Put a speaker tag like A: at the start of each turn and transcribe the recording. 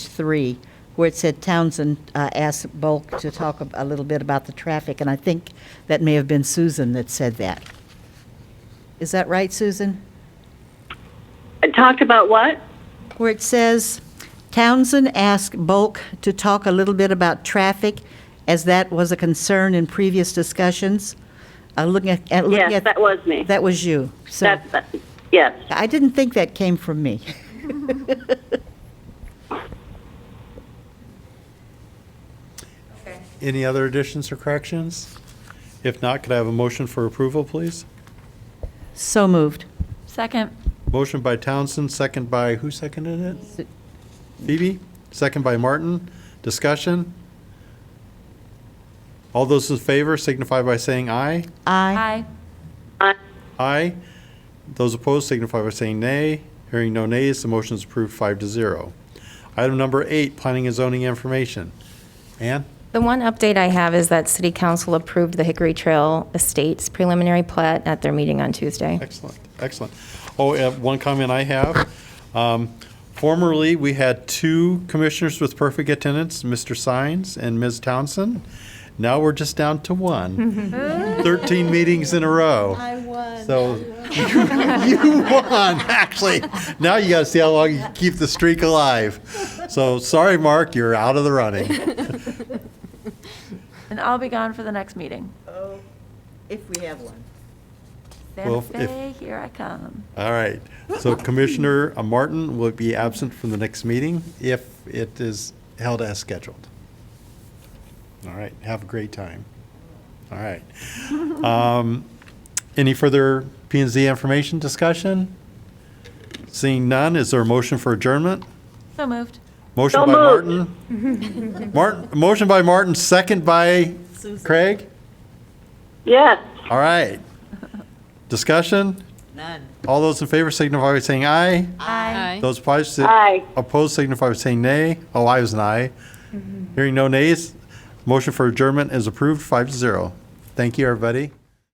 A: three, where it said Townsend uh, asked Bulk to talk a- a little bit about the traffic, and I think that may have been Susan that said that. Is that right, Susan?
B: Talked about what?
A: Where it says Townsend asked Bulk to talk a little bit about traffic, as that was a concern in previous discussions. Uh, Looking at, at- looking
B: Yes,
A: at.
B: that was me.
A: That was you. So
B: That's, that- yes.
A: I didn't think that came from me.
C: Any other additions or corrections? If not, could I have a motion for approval, please?
A: So moved.
D: Second.
C: Motion by Townsend, second by, who seconded it? Phoebe, second by Martin. Discussion? All those in favor signify by saying aye.
A: Aye.
D: Aye.
B: I-
C: Aye. Those opposed signify by saying nay. Hearing no nays, the motion is approved five to zero. Item number eight, planning and zoning information. Ann?
E: The one update I have is that City Council approved the Hickory Trail Estates preliminary plat at their meeting on Tuesday.
C: Excellent, excellent. Oh, uh, one comment I have. Um, Formerly, we had two commissioners with perfect attendance, Mr. Sines and Ms. Townsend. Now we're just down to one. 13 meetings in a row. I won. So you you won, actually. Now you got to see how long you can keep the streak alive. So sorry, Mark, you're out of the running.
D: And I'll be gone for the next meeting.
A: Oh, If we have one.
C: Well,
D: Santa
C: if-
D: Fe, here I come.
C: All right. So Commissioner uh, Martin will be absent from the next meeting if it is held as scheduled. All right. Have a great time. All right. Um, Any further P and Z information discussion? Seeing none, is there a motion for adjournment?
D: So moved.
C: Motion
B: So
C: by
B: moved.
C: Martin. Martin, motion by Martin, second by Craig?
B: Yes.
C: All right. Discussion?
A: None.
C: All those in favor signify by saying aye.
D: Aye.
C: Those opposed, si-
B: Aye.
C: opposed signify by saying nay. Oh, I was an aye. Hearing no nays, motion for adjournment is approved, five to zero. Thank you, everybody.